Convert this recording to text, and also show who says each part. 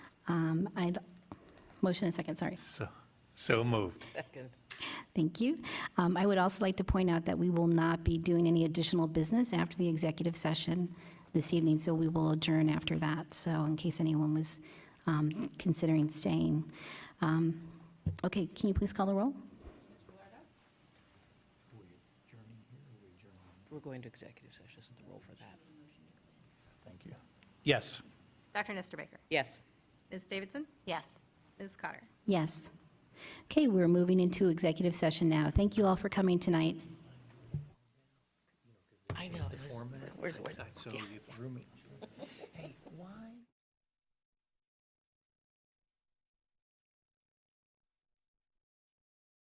Speaker 1: Um, I'd, motion and second, sorry.
Speaker 2: So, so moved.
Speaker 3: Second.
Speaker 1: Thank you. Um, I would also like to point out that we will not be doing any additional business after the executive session this evening, so we will adjourn after that, so in case anyone was um, considering staying. Um, Okay, can you please call the roll?
Speaker 3: We're going to executive session, It's the role for that.
Speaker 2: Thank you. Yes.
Speaker 4: Dr. Nestor Baker.
Speaker 3: Yes.
Speaker 4: Ms. Davidson? Yes. Ms. Cotter?
Speaker 1: Yes. Okay, we're moving into executive session now. Thank you all for coming tonight.
Speaker 3: I know. it was- Where's, where's?
Speaker 2: So you threw me. Hey, why?